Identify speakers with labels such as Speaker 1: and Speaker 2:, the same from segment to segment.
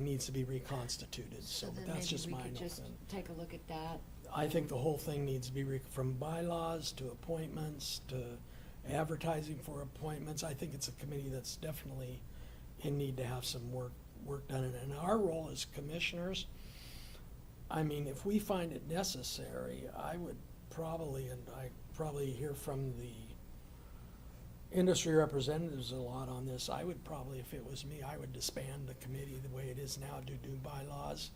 Speaker 1: needs to be reconstituted, so
Speaker 2: So then
Speaker 1: that's
Speaker 2: maybe
Speaker 1: just
Speaker 2: we
Speaker 1: my
Speaker 2: could just
Speaker 1: opinion.
Speaker 2: take a look at that.
Speaker 1: I think the whole thing needs to be, re- from bylaws to appointments to advertising for appointments. I think it's a committee that's definitely in need to have some work, work done. And- And our role as commissioners, I mean, if we find it necessary, I would probably, and I probably hear from the industry representatives a lot on this, I would probably, if it was me, I would disband the committee the way it is now, do new bylaws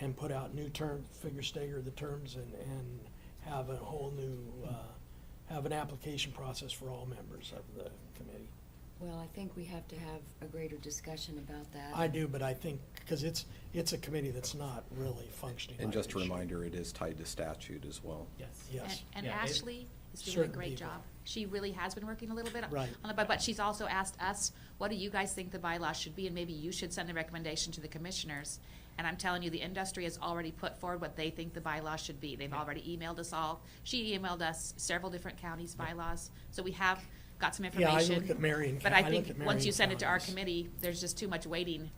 Speaker 1: and put out new term, figure stagger the terms and, and have a whole new, uh, have an application process for all members of the committee.
Speaker 2: Well, I think we have to have a greater discussion about that.
Speaker 1: I do, but I think, because it's, it's a committee that's not really functioning.
Speaker 3: And
Speaker 1: like
Speaker 3: just
Speaker 1: it
Speaker 3: a
Speaker 1: should.
Speaker 3: reminder, it is tied to statute as well.
Speaker 4: Yes.
Speaker 1: Yes.
Speaker 5: And and
Speaker 4: Yeah, it-
Speaker 5: Ashley is doing a
Speaker 1: Certain
Speaker 5: great
Speaker 1: people.
Speaker 5: job. She really has been working a little bit on
Speaker 1: Right.
Speaker 5: the, by- but she's also asked us, what do you guys think the bylaw should be? And maybe you should send a recommendation to the commissioners. And I'm telling you, the industry has already put forward what they think the bylaw should be. They've already emailed us all. She emailed us several different counties' bylaws. So we have got some
Speaker 1: Yeah, I
Speaker 5: information.
Speaker 1: look at Marion.
Speaker 5: But
Speaker 1: Coun-
Speaker 5: I
Speaker 1: look
Speaker 5: think,
Speaker 1: at
Speaker 5: once
Speaker 1: Marion
Speaker 5: you send it to our
Speaker 1: counties.
Speaker 5: committee, there's just too much waiting,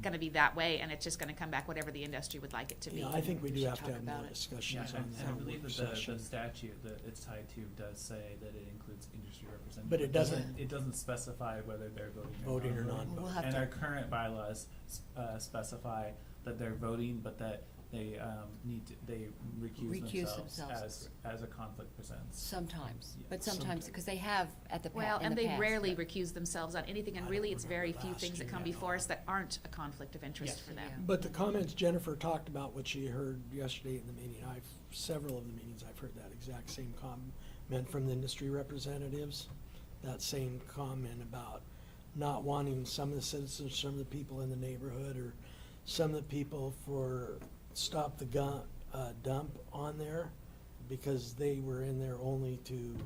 Speaker 5: gonna be that way, and it's just gonna come back whatever the industry would like it to be.
Speaker 1: Yeah, I think we
Speaker 2: We
Speaker 1: do
Speaker 2: should
Speaker 1: have to
Speaker 2: talk
Speaker 1: have more
Speaker 2: about it.
Speaker 4: Yeah,
Speaker 1: discussions
Speaker 4: I-
Speaker 1: on
Speaker 4: I
Speaker 1: that
Speaker 4: believe
Speaker 1: work
Speaker 4: that the,
Speaker 1: session.
Speaker 4: the statute that it's tied to does say that it includes industry representatives.
Speaker 1: But it
Speaker 2: doesn't-
Speaker 4: It doesn't specify whether they're voting or
Speaker 1: Voting or
Speaker 4: non-voting.
Speaker 1: non-voting.
Speaker 2: We'll have
Speaker 4: And our
Speaker 2: to,
Speaker 4: current bylaws s- uh, specify that they're voting, but that they um, need, to- they recuse
Speaker 2: Recuse
Speaker 4: themselves as,
Speaker 2: themselves.
Speaker 4: as a conflict presents.
Speaker 2: sometimes,
Speaker 4: Yeah,
Speaker 2: but sometimes, because they have at the, pa-
Speaker 5: Well,
Speaker 2: in
Speaker 5: and
Speaker 2: the
Speaker 5: they
Speaker 2: past.
Speaker 5: rarely recuse themselves on anything,
Speaker 1: I
Speaker 5: and
Speaker 1: don't
Speaker 5: really, it's very
Speaker 1: remember
Speaker 5: few
Speaker 1: last
Speaker 5: things that
Speaker 1: year
Speaker 5: come
Speaker 1: at
Speaker 5: before us
Speaker 1: all.
Speaker 5: that aren't a conflict of interest
Speaker 4: Yes.
Speaker 5: for
Speaker 2: Yeah.
Speaker 5: them.
Speaker 1: But the comments Jennifer talked about, what she heard yesterday in the meeting, I've, several of the meetings, I've heard that exact same comment from the industry representatives. That same comment about not wanting some of the citizens, some of the people in the neighborhood, or some of the people for stop the gun, uh, dump on there, because they were in there only to,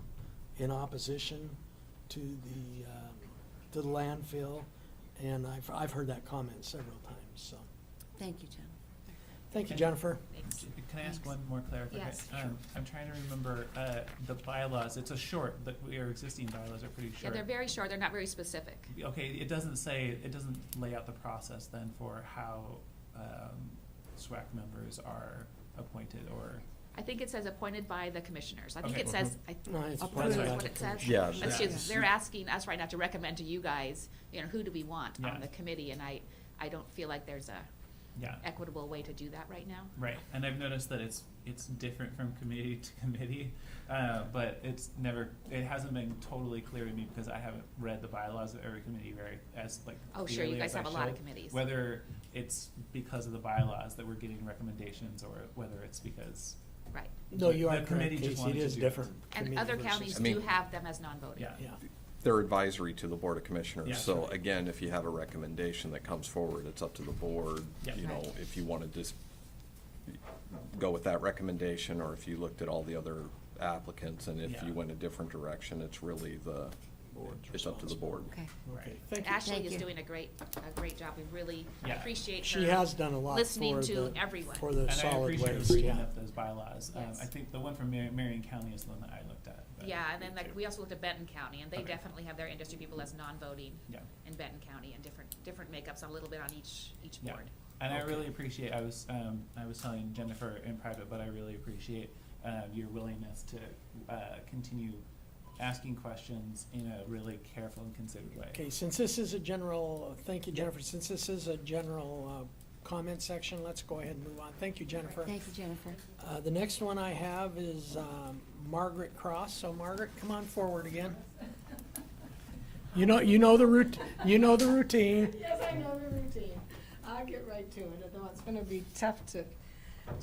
Speaker 1: in opposition to the, um, to the landfill. And I've, I've heard that comment several times, so.
Speaker 2: Thank you, Jennifer.
Speaker 1: Thank you, Jennifer.
Speaker 5: Thanks.
Speaker 4: Can I ask
Speaker 2: Thanks.
Speaker 4: one more clarification?
Speaker 5: Yes.
Speaker 4: Um, I'm trying to remember, uh, the bylaws, it's a short, that our existing bylaws are pretty short.
Speaker 5: Yeah, they're very short, they're not very specific.
Speaker 4: Okay, it doesn't say, it doesn't lay out the process then for how um, SWAC members are appointed or,
Speaker 5: I think it says appointed by the commissioners. I think
Speaker 4: Okay.
Speaker 5: it says, I
Speaker 1: No, Mm-hmm. it's
Speaker 5: think
Speaker 4: appointed
Speaker 5: that's
Speaker 4: by
Speaker 5: what
Speaker 1: the
Speaker 5: it says.
Speaker 3: Yeah,
Speaker 5: But it's
Speaker 4: yeah.
Speaker 5: just, they're asking us right now to recommend to you guys, you know, who do we want
Speaker 4: Yeah.
Speaker 5: on the committee? And I, I don't feel like there's a
Speaker 4: yeah,
Speaker 5: equitable way to do that right now.
Speaker 4: right. And I've noticed that it's, it's different from committee to committee, uh, but it's never, it hasn't been totally clear to me because I haven't read the bylaws of every committee very, as like
Speaker 5: Oh, sure, you
Speaker 4: clearly
Speaker 5: guys
Speaker 4: as I
Speaker 5: have a lot of
Speaker 4: should.
Speaker 5: committees.
Speaker 4: Whether it's because of the bylaws that we're getting recommendations or whether it's because,
Speaker 5: Right.
Speaker 1: No, you are
Speaker 4: The
Speaker 1: correct,
Speaker 4: committee just
Speaker 1: Casey, it
Speaker 4: wanted to
Speaker 1: is
Speaker 4: do it.
Speaker 1: different.
Speaker 5: And
Speaker 1: committee
Speaker 5: other
Speaker 1: versus-
Speaker 5: counties
Speaker 3: I mean-
Speaker 5: do have them as non-voting.
Speaker 4: yeah.
Speaker 1: Yeah,
Speaker 3: They're advisory to the Board of
Speaker 4: Yeah.
Speaker 3: Commissioners. So again, if you have a recommendation that comes forward, it's up to the board.
Speaker 4: Yeah.
Speaker 3: You know,
Speaker 5: Right.
Speaker 3: if you want to just go with that recommendation, or if you looked at all the other applicants, and if
Speaker 4: Yeah.
Speaker 3: you went a different direction, it's really the,
Speaker 1: Board's
Speaker 3: it's up to the board.
Speaker 2: Okay.
Speaker 1: okay,
Speaker 4: Right.
Speaker 1: thank you.
Speaker 5: Ashley
Speaker 2: Thank
Speaker 5: is
Speaker 2: you.
Speaker 5: doing a great, a great job. We really
Speaker 4: Yeah.
Speaker 5: appreciate her.
Speaker 1: She has done a lot
Speaker 5: listening
Speaker 1: for
Speaker 5: to
Speaker 1: the-
Speaker 5: everyone.
Speaker 1: For the
Speaker 4: And I
Speaker 1: solid
Speaker 4: appreciate
Speaker 1: waste,
Speaker 4: reading
Speaker 1: yeah.
Speaker 4: up those bylaws. Um,
Speaker 5: Yes.
Speaker 4: I think the one from Mar- Marion County is the one that I looked at. but-
Speaker 5: Yeah, and then like, we also looked at Benton County, and they
Speaker 4: Okay.
Speaker 5: definitely have their industry people as non-voting
Speaker 4: Yeah.
Speaker 5: in Benton County and different, different makeups, a little bit on each, each
Speaker 4: Yeah.
Speaker 5: board.
Speaker 4: And I
Speaker 1: Okay.
Speaker 4: really appreciate, I was, um, I was telling Jennifer in private, but I really appreciate, uh, your willingness to, uh, continue asking questions in a really careful and considered way.
Speaker 1: Okay, since this is a general, uh, thank you, Jennifer, since this is a general uh, comment section, let's go ahead and move on. Thank you, Jennifer.
Speaker 2: Thank you, Jennifer.
Speaker 1: Uh, The next one I have is um, Margaret Cross, so Margaret, come on forward again. You know, you know the route, you know the routine.
Speaker 6: Yes, I know the routine. I'll get right to it, although it's going to be tough to,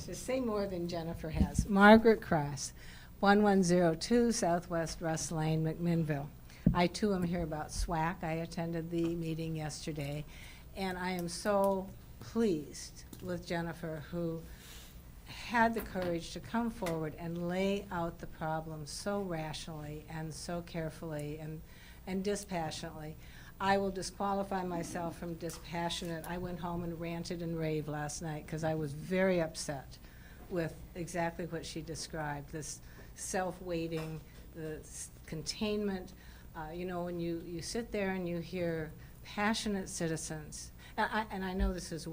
Speaker 6: to say more than Jennifer has. Margaret Cross, 1102 Southwest Russ Lane, McMinnville. I too am here about SWAC. I attended the meeting yesterday, and I am so pleased with Jennifer, who had the courage to come forward and lay out the problem so rationally and so carefully and, and dispassionately. I will disqualify myself from dispassionate. I went home and ranted and raved last night because I was very upset with exactly what she described, this self-waiting, the s- containment. Uh, you know, when you, you sit there and you hear passionate citizens, and I, and I know this is